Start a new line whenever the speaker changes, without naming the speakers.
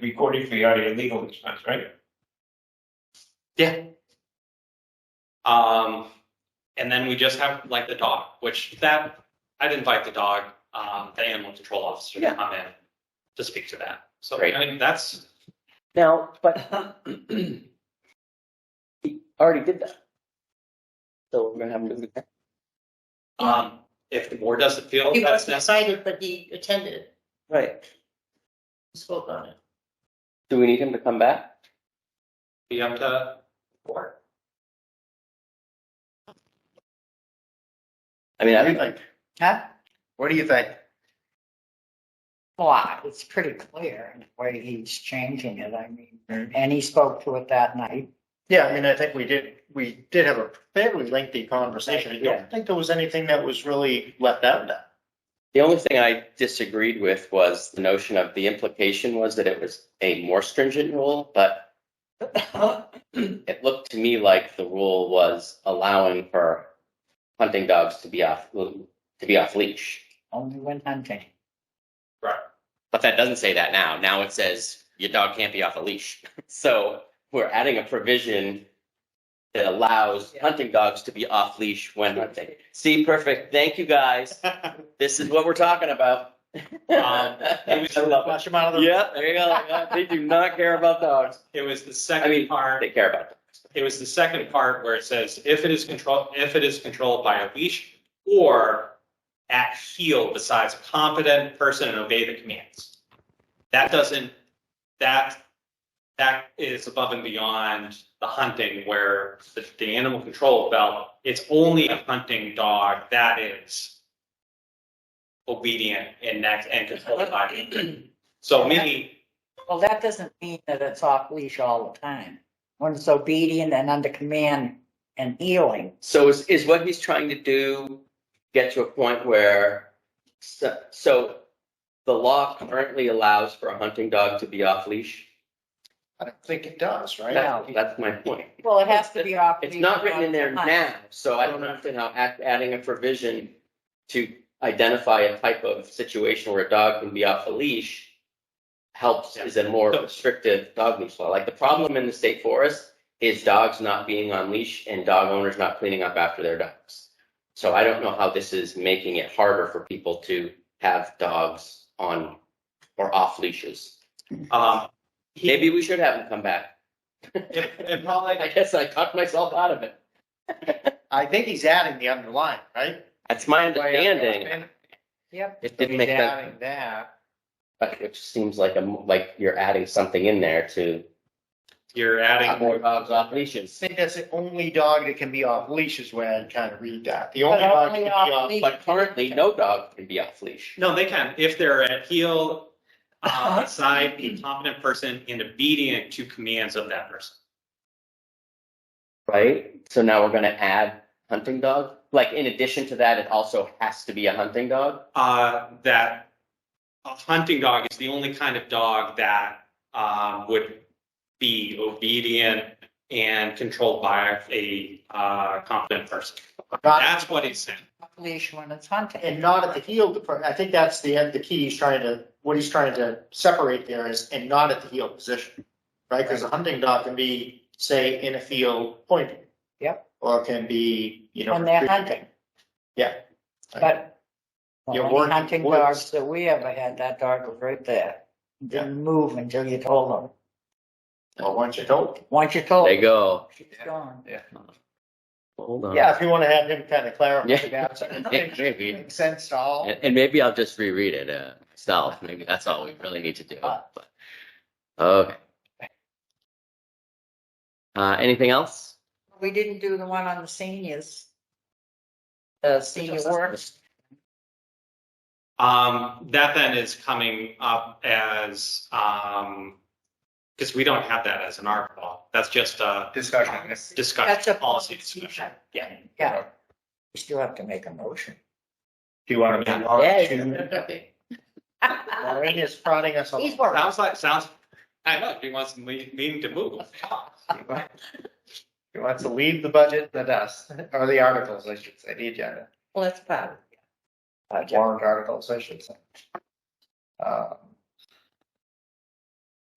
recording fee are your legal expense, right?
Yeah. Um, and then we just have like the dog, which that I'd invite the dog, um, the animal control officer to
Yeah.
come in to speak to that. So
Great.
I mean that's
Now, but he already did that. So we're gonna have to, do that.
um, if the board doesn't feel
He
that's
wasn't
necessary.
excited, but he attended,
right?
spoke on it.
Do we need him to come back?
be up to board.
I mean, I
What do
don't
you think?
Huh?
What do you think?
Well, it's pretty clear the way he's changing it. I mean,
Mm-hmm.
and he spoke to it that night.
Yeah, I mean, I think we did, we did have a fairly lengthy conversation. I
Yeah.
don't think there was anything that was really left out of that.
The only thing I disagreed with was the notion of the implication was that it was a more stringent rule, but it looked to me like the rule was allowing for hunting dogs to be off to be off leash.
Only when hunting.
But that doesn't say that now. Now it says your dog can't be off a leash. So we're adding a provision that allows hunting dogs to be off leash when hunting. See, perfect. Thank you guys. This is what we're talking about.
Um,
I love it.
Flush them out of the.
Yeah, there you go. Yeah, They do not care about dogs.
It was the
I mean,
second part.
They care about dogs.
It was the second part where it says, if it is controlled, if it is controlled by a leash or at heel besides a competent person and obey the commands. That doesn't, that, that is above and beyond the hunting where the, the animal control felt it's only a hunting dog that is obedient and that, and controlled by. So maybe,
Well, that doesn't mean that it's off leash all the time. When it's obedient and under command and healing.
So is, is what he's trying to do get to a point where, so, so the law currently allows for a hunting dog to be off leash?
I don't think it does, right?
That- That's my point.
Well, it has to be off.
It's
leash
not written in there
when hunt.
now, so I don't understand how add- adding a provision to identify a type of situation where a dog can be off a leash helps is a more restrictive dog leash law. Like the problem in the state forest is dogs not being on leash and dog owners not cleaning up after their dogs. So I don't know how this is making it harder for people to have dogs on or off leashes.
um, he-
Maybe we should have them come back.
it, it probably,
I guess I talked myself out of it.
I think he's adding the underline, right?
That's my understanding.
Yep.
It
So
didn't
he's
make that,
Adding that.
but it seems like a, like you're adding something in there to
you're adding
more dogs off leashes.
I think that's the only dog that can be off leash is where I'd kind of read that. The
But
only dog that
only
can be
off
off.
leash.
But currently, no dog can be off leash.
No, they can, if they're at heel, uh, beside a competent person and obedient to commands of that person.
Right? So now we're gonna add hunting dog? Like in addition to that, it also has to be a hunting dog?
Uh, that a hunting dog is the only kind of dog that, um, would be obedient and controlled by a, uh, competent person.
Not
That's what it said.
Off leash when it's hunting.
and not at the heel department. I think that's the the key he's trying to what he's trying to separate there is and not at the heel position, right? Because a hunting dog can be say in a field pointing.
Yep.
Or can be you know
When they're hunting.
Yeah.
But
You're
well,
working
any hunting
woods.
dogs that we ever had, that dog was right there. Didn't move until you told him.
Well, once you told.
Once you told
They
him,
go.
she's gone.
Oh. Hold on.
Yeah, if you want to have him kind of
Yeah.
clarify that, so it
Hey,
makes-
maybe.
makes sense to all.
And, and maybe I'll just reread it uh, myself. Maybe that's all we really need to do. But, okay. Uh, anything else?
We didn't do the one on the seniors. The senior works.
Um, that then is coming up as, um, because we don't have that as an article. That's just a
Discussion.
That's
discussion,
a
policy discussion.
Yeah. Yeah. You still have to make a motion.
Do you want to? move on to- Lorraine is prodding us.
He's
along.
working.
Sounds like, sounds, I know, he wants me, me to move.
He wants to leave the budget to us, or the articles, I should say, the agenda.
Well, that's bad.
uh, warrant articles, I should say. Uh,